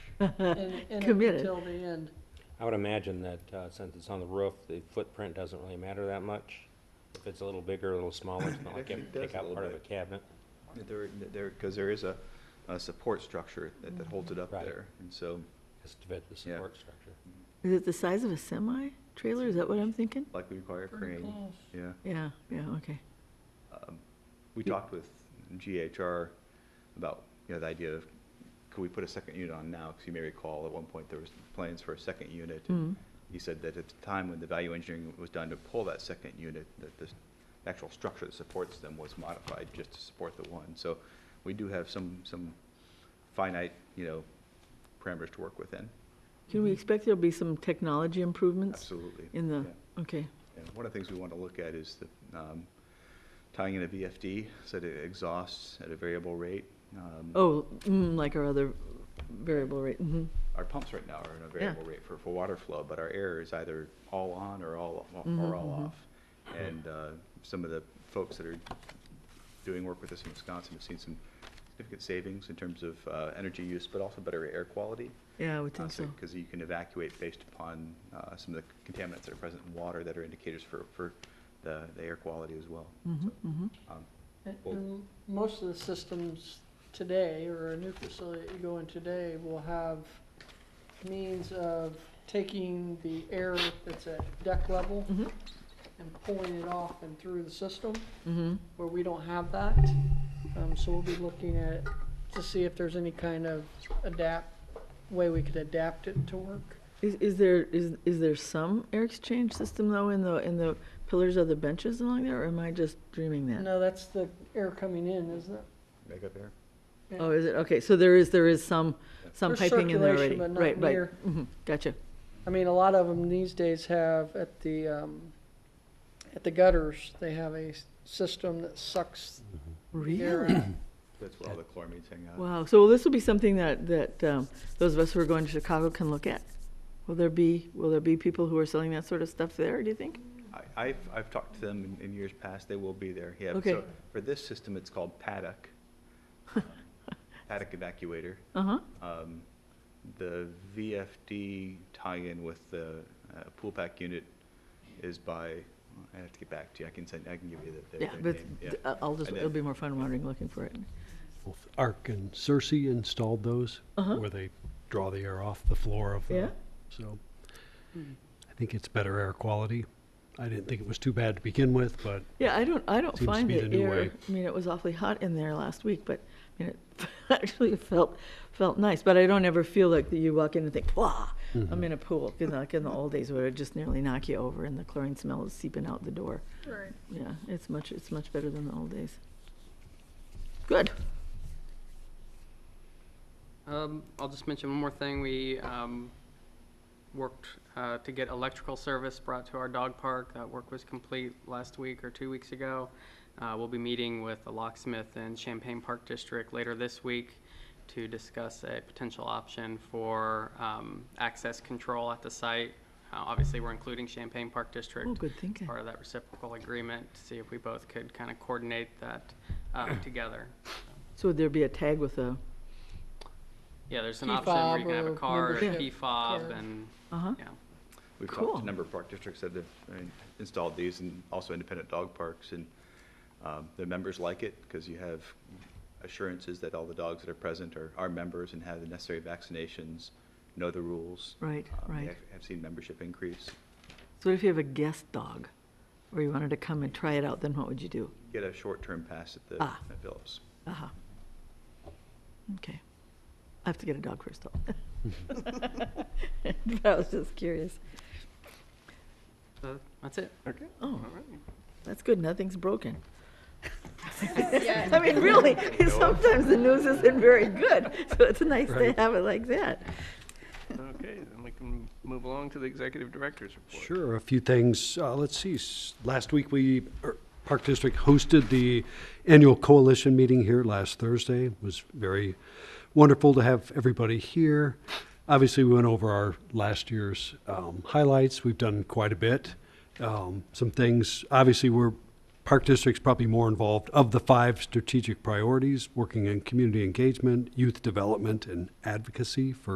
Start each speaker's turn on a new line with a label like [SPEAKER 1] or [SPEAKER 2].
[SPEAKER 1] and- and
[SPEAKER 2] Committed.
[SPEAKER 1] Until the end.
[SPEAKER 3] I would imagine that uh, since it's on the roof, the footprint doesn't really matter that much. If it's a little bigger, a little smaller, it's not like you have to
[SPEAKER 4] actually does
[SPEAKER 3] take
[SPEAKER 4] a
[SPEAKER 3] out
[SPEAKER 4] little
[SPEAKER 3] part of a
[SPEAKER 4] bit.
[SPEAKER 3] cabinet.
[SPEAKER 4] There, there, because there is a, a support structure that, that holds it
[SPEAKER 2] Mm-hmm.
[SPEAKER 4] up
[SPEAKER 3] Right.
[SPEAKER 4] there. And so,
[SPEAKER 3] It's to fit the
[SPEAKER 4] Yeah.
[SPEAKER 3] support structure.
[SPEAKER 2] Is it the size of a semi trailer? Is that what I'm thinking?
[SPEAKER 4] like we require a
[SPEAKER 1] Pretty
[SPEAKER 4] crane,
[SPEAKER 1] close.
[SPEAKER 4] yeah.
[SPEAKER 2] Yeah, yeah, okay.
[SPEAKER 4] Um, We talked with GHR about, you know, the idea of, could we put a second unit on now? Because you may recall, at one point, there was plans for a second unit.
[SPEAKER 2] Mm.
[SPEAKER 4] He said that at the time when the value engineering was done to pull that second unit, that the actual structure that supports them was modified just to support the one. So we do have some, some finite, you know, parameters to work within.
[SPEAKER 2] Can we expect there'll be some technology improvements
[SPEAKER 4] Absolutely.
[SPEAKER 2] in the,
[SPEAKER 4] Yeah.
[SPEAKER 2] okay,
[SPEAKER 4] And one of the things we want to look at is the, um, tying in a VFD, so that it exhausts at a variable rate. Um,
[SPEAKER 2] oh, mm, like our other variable rate, mhm.
[SPEAKER 4] Our pumps right now are in a variable rate for, for water flow, but our air is either all on or all,
[SPEAKER 2] Mm-hmm,
[SPEAKER 4] or all off. And, uh, some of the folks that are doing work with us in Wisconsin have seen some significant savings in terms of, uh, energy use, but also better air quality.
[SPEAKER 2] yeah, I would think so.
[SPEAKER 4] Because you can evacuate based upon, uh, some of the contaminants that are present in water that are indicators for, for the, the air quality as well.
[SPEAKER 2] Mhm, mhm.
[SPEAKER 4] Um,
[SPEAKER 1] And-
[SPEAKER 3] Well-
[SPEAKER 1] and Most of the systems today, or a new facility that you go in today, will have means of taking the air that's at deck level
[SPEAKER 2] Mhm.
[SPEAKER 1] and pulling it off and through the system,
[SPEAKER 2] Mhm.
[SPEAKER 1] where we don't have that. Um, so we'll be looking at, to see if there's any kind of adapt, way we could adapt it to work.
[SPEAKER 2] Is, is there, is, is there some air exchange system though in the, in the pillars of the benches along there, or am I just dreaming that?
[SPEAKER 1] No, that's the air coming in, isn't it?
[SPEAKER 4] Make up air?
[SPEAKER 2] Oh, is it, okay, so there is, there is some, some
[SPEAKER 1] There's
[SPEAKER 2] piping in there already?
[SPEAKER 1] circulation, but not
[SPEAKER 2] Right, right,
[SPEAKER 1] near.
[SPEAKER 2] mhm, gotcha,
[SPEAKER 1] I mean, a lot of them these days have at the, um, at the gutters, they have a s- system that sucks air
[SPEAKER 2] really?
[SPEAKER 1] out.
[SPEAKER 4] That's where all the chloramines hang out.
[SPEAKER 2] Wow, so this will be something that, that um, those of us who are going to Chicago can look at? Will there be, will there be people who are selling that sort of stuff there, do you think?
[SPEAKER 4] I- I've, I've talked to them in, in years past, they will be there, yeah.
[SPEAKER 2] Okay.
[SPEAKER 4] So For this system, it's called paddock. Um, Paddock evacuator.
[SPEAKER 2] Uh-huh,
[SPEAKER 4] Um, The VFD tie-in with the uh, pool pack unit is by, I have to get back to you, I can send, I can give you the,
[SPEAKER 2] yeah,
[SPEAKER 4] their- their
[SPEAKER 2] but
[SPEAKER 4] name, yeah.
[SPEAKER 2] th- I- I'll just,
[SPEAKER 4] And
[SPEAKER 2] it'll
[SPEAKER 4] then-
[SPEAKER 2] be more fun wandering, looking for it.
[SPEAKER 5] Both Arc and Cersei installed those,
[SPEAKER 2] Uh-huh.
[SPEAKER 5] where they draw the air off the floor of the.
[SPEAKER 2] Yeah. Hmm.
[SPEAKER 5] So I think it's better air quality. I didn't think it was too bad to begin with, but
[SPEAKER 2] Yeah, I don't, I don't
[SPEAKER 5] Seems to
[SPEAKER 2] find
[SPEAKER 5] be
[SPEAKER 2] the
[SPEAKER 5] the new
[SPEAKER 2] air,
[SPEAKER 5] way.
[SPEAKER 2] I mean, it was awfully hot in there last week, but, I mean, it actually felt, felt nice, but I don't ever feel like that you walk in and think, wow,
[SPEAKER 5] Mm-hmm.
[SPEAKER 2] I'm in a pool, you know, like in the old days where it just nearly knock you over and the chlorine smell is seeping out the door.
[SPEAKER 1] Right.
[SPEAKER 2] Yeah, it's much, it's much better than the old days. Good.
[SPEAKER 6] Um, I'll just mention one more thing. We, um, worked, uh, to get electrical service brought to our dog park. That work was complete last week or two weeks ago. Uh, we'll be meeting with the locksmith and Champaign Park District later this week to discuss a potential option for, um, access control at the site. Uh, obviously, we're including Champaign Park District
[SPEAKER 2] Oh, good thinking.
[SPEAKER 6] part of that reciprocal agreement, to see if we both could kind of coordinate that, um, together.
[SPEAKER 2] So would there be a tag with a,
[SPEAKER 6] Yeah, there's an option where you can have a
[SPEAKER 1] PFOB or
[SPEAKER 6] card, a
[SPEAKER 1] membership
[SPEAKER 6] PFOB,
[SPEAKER 1] card.
[SPEAKER 6] and,
[SPEAKER 2] uh-huh,
[SPEAKER 6] yeah.
[SPEAKER 4] We've talked
[SPEAKER 2] Cool.
[SPEAKER 4] to a number of park districts that have uh, installed these and also independent dog parks. And um, the members like it because you have assurances that all the dogs that are present are, are members and have the necessary vaccinations, know the rules.
[SPEAKER 2] right,
[SPEAKER 4] Um, we
[SPEAKER 2] right.
[SPEAKER 4] have- Have seen membership increase.
[SPEAKER 2] So what if you have a guest dog, or you wanted to come and try it out, then what would you do?
[SPEAKER 4] Get a short-term pass at the
[SPEAKER 2] Ah.
[SPEAKER 4] at Phillips.
[SPEAKER 2] Uh-huh. Okay. I have to get a dog first, though. But I was just curious.
[SPEAKER 6] So that's it.
[SPEAKER 2] Oh,
[SPEAKER 6] All right.
[SPEAKER 2] that's good, nothing's broken. I mean, really, sometimes the news isn't very good, so it's nice to
[SPEAKER 5] Right.
[SPEAKER 2] have it like that.
[SPEAKER 7] Okay, then we can move along to the executive director's report.
[SPEAKER 5] Sure, a few things. Uh, let's see, s- last week we, er, Park District hosted the annual coalition meeting here last Thursday. It was very wonderful to have everybody here. Obviously, we went over our last year's um, highlights. We've done quite a bit. Um, some things, obviously, we're, Park District's probably more involved of the five strategic priorities, working in community engagement, youth development, and advocacy for